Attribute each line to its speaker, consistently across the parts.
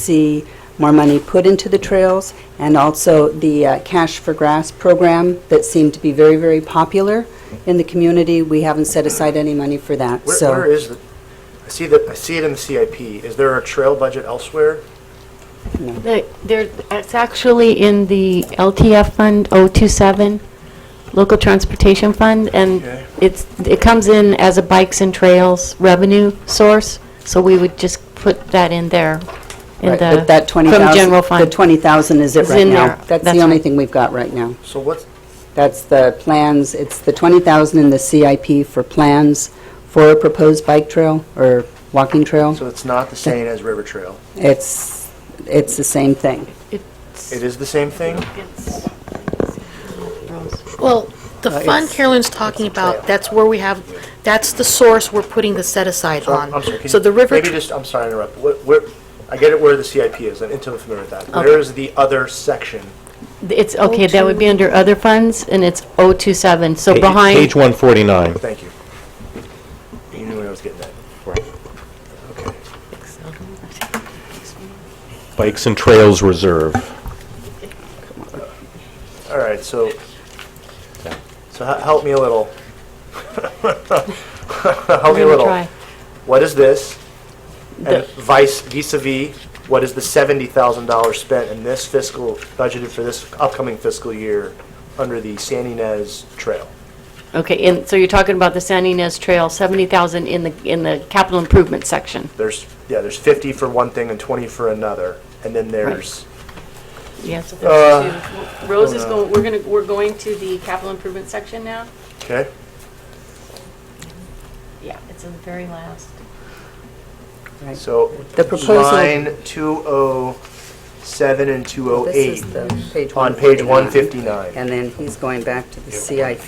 Speaker 1: see more money put into the trails, and also the uh, Cash for Grass program that seemed to be very, very popular in the community. We haven't set aside any money for that,
Speaker 2: Where,
Speaker 1: so.
Speaker 2: where is the, I see that, I see it in the CIP. Is there a trail budget elsewhere?
Speaker 3: The- There, it's actually in the LTF Fund 027, Local Transportation Fund, and
Speaker 2: Okay.
Speaker 3: it's, it comes in as a bikes and trails revenue source, so we would just put that in there. in
Speaker 1: Right,
Speaker 3: the-
Speaker 1: but that 20,000.
Speaker 3: From general
Speaker 1: The
Speaker 3: fund.
Speaker 1: 20,000 is it
Speaker 3: It's
Speaker 1: right
Speaker 3: in
Speaker 1: now.
Speaker 3: there.
Speaker 1: That's
Speaker 3: That's
Speaker 1: the only
Speaker 3: right.
Speaker 1: thing we've got right now.
Speaker 2: So what's,
Speaker 1: That's the plans, it's the 20,000 in the CIP for plans for a proposed bike trail or walking trail.
Speaker 2: so it's not the same as River Trail?
Speaker 1: It's, it's the same thing.
Speaker 2: It is the same thing?
Speaker 4: Well, the
Speaker 1: Uh,
Speaker 4: fund
Speaker 1: it's-
Speaker 4: Carolyn's talking
Speaker 2: trail.
Speaker 4: about, that's where we have, that's the source we're putting the set aside
Speaker 2: So I'm-
Speaker 4: on.
Speaker 2: I'm sorry, can
Speaker 4: So
Speaker 2: you-
Speaker 4: the river,
Speaker 2: Maybe just, I'm sorry to interrupt. What- Where, I get it where the CIP is. I'm intimately familiar with that. Where is the other section?
Speaker 3: It's, okay, that would be under other funds, and it's 027, so
Speaker 5: Pa-
Speaker 3: behind.
Speaker 5: Page 149.
Speaker 2: Thank you. You knew where I was getting at. Okay.
Speaker 5: Bikes and Trails Reserve.
Speaker 2: All right, so, so he- help me a little. Help me a
Speaker 3: Let me
Speaker 2: little.
Speaker 3: try.
Speaker 2: What is this? And vice, vis-à-vis, what is the $70,000 spent in this fiscal, budgeted for this upcoming fiscal year under the San Ynez Trail?
Speaker 3: Okay, and so you're talking about the San Ynez Trail, 70,000 in the, in the capital improvement section.
Speaker 2: There's, yeah, there's 50 for one thing and 20 for another, and then there's,
Speaker 3: Yes.
Speaker 2: Uh,
Speaker 3: Rose is going, we're going to, we're going to the capital improvement section now?
Speaker 2: okay?
Speaker 3: Yeah, it's in the very last.
Speaker 1: Right.
Speaker 2: So,
Speaker 1: The proposal-
Speaker 2: line 207 and
Speaker 1: This
Speaker 2: 208
Speaker 1: is the page
Speaker 2: on page 159.
Speaker 1: And then he's going back to the CIP.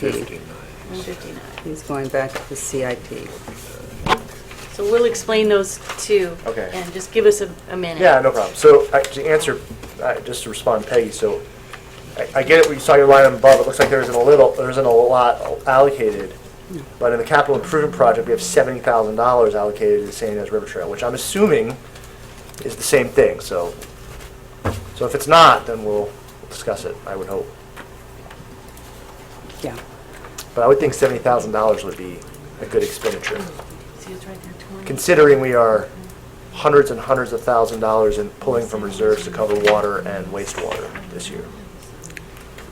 Speaker 1: He's going back to the CIP.
Speaker 3: So we'll explain those two.
Speaker 2: Okay.
Speaker 3: And just give us a a minute.
Speaker 2: Yeah, no problem. So I- to answer, I- just to respond to Peggy, so I- I get it, we saw your line above, it looks like there isn't a little, there isn't a lot allocated, but in the capital improvement project, we have seventy thousand dollars allocated to the San Ynez River Trail, which I'm assuming is the same thing, so. So if it's not, then we'll discuss it, I would hope.
Speaker 1: Yeah.
Speaker 2: But I would think seventy thousand dollars would be a good expenditure. Considering we are hundreds and hundreds of thousand dollars in pulling from reserves to cover water and wastewater this year.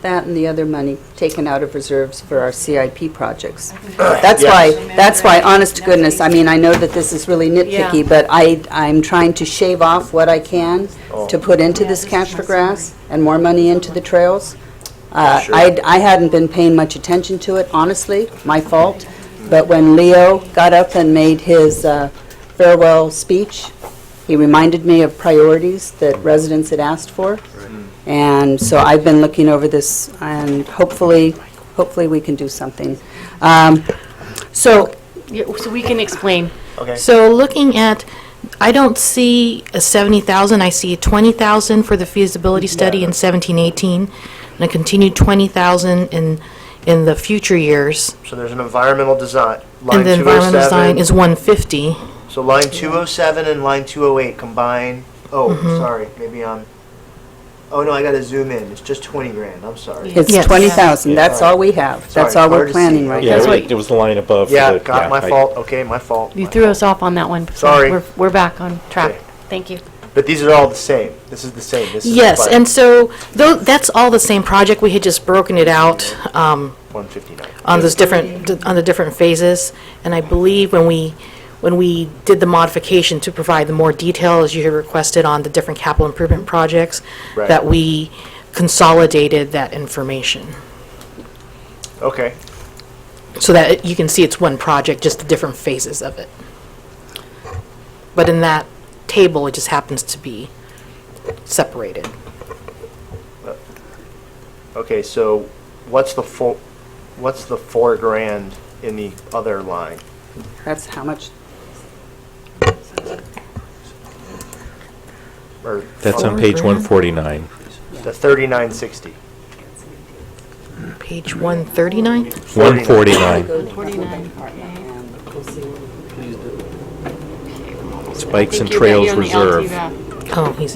Speaker 1: That and the other money taken out of reserves for our CIP projects. That's why, that's why, honest to goodness, I mean, I know that this is really
Speaker 3: Yeah.
Speaker 1: nitpicky, but I, I'm trying to shave off what I can
Speaker 2: Oh.
Speaker 1: to put into
Speaker 3: Yeah,
Speaker 1: this
Speaker 3: this
Speaker 1: cash
Speaker 3: is
Speaker 1: for
Speaker 3: my
Speaker 1: grass and more money into the trails. Uh,
Speaker 2: Sure.
Speaker 1: I'd- I hadn't been paying much attention to it, honestly, my fault. But when Leo got up and made his uh, farewell speech, he reminded me of priorities that residents had asked for. And so I've been looking over this, and hopefully, hopefully we can do something. Um, So,
Speaker 3: Yeah, So we can explain.
Speaker 2: Okay.
Speaker 4: so looking at, I don't see a 70,000, I see 20,000 for the feasibility study in 17, 18, and a continued 20,000 in, in the future years.
Speaker 2: So there's an environmental design, line
Speaker 4: And the environmental design
Speaker 2: 207.
Speaker 4: is 150.
Speaker 2: So line 207 and line 208 combine, oh,
Speaker 4: Mm-hmm.
Speaker 2: sorry, maybe I'm, oh no, I gotta zoom in, it's just 20 grand, I'm sorry.
Speaker 1: it's
Speaker 4: Yes.
Speaker 1: 20,000, that's all we have. That's
Speaker 2: Sorry,
Speaker 1: all
Speaker 2: hard
Speaker 1: we're
Speaker 2: to
Speaker 1: planning
Speaker 2: see.
Speaker 1: right
Speaker 5: Yeah,
Speaker 3: That's
Speaker 1: now.
Speaker 3: what-
Speaker 5: it was the line above. for
Speaker 2: Yeah,
Speaker 5: the-
Speaker 2: got, my
Speaker 5: I-
Speaker 2: fault, okay, my fault.
Speaker 3: You
Speaker 2: my
Speaker 3: threw
Speaker 2: fault.
Speaker 3: us off on that one. so
Speaker 2: Sorry.
Speaker 3: We're, we're back on track.
Speaker 2: Okay.
Speaker 3: Thank you.
Speaker 2: But these are all the same, this is the same, this is. the
Speaker 4: Yes,
Speaker 2: budget,
Speaker 4: and so, though, that's all the same project, we had just broken it out, um,
Speaker 2: 159.
Speaker 4: on those different, on the different phases. And I believe when we, when we did the modification to provide the more detail, as you had requested on the different capital improvement projects,
Speaker 2: Right.
Speaker 4: that we consolidated that information,
Speaker 2: Okay,
Speaker 4: so that it- you can see it's one project, just the different phases of it. But in that table, it just happens to be separated.
Speaker 2: okay, so what's the four, what's the four grand in the other line?
Speaker 1: That's how much,
Speaker 2: Or
Speaker 5: That's on
Speaker 2: um,
Speaker 5: page 149.
Speaker 2: The 3960.
Speaker 4: Page 139?
Speaker 5: 149. It's Bikes and Trails Reserve.
Speaker 4: Oh, he's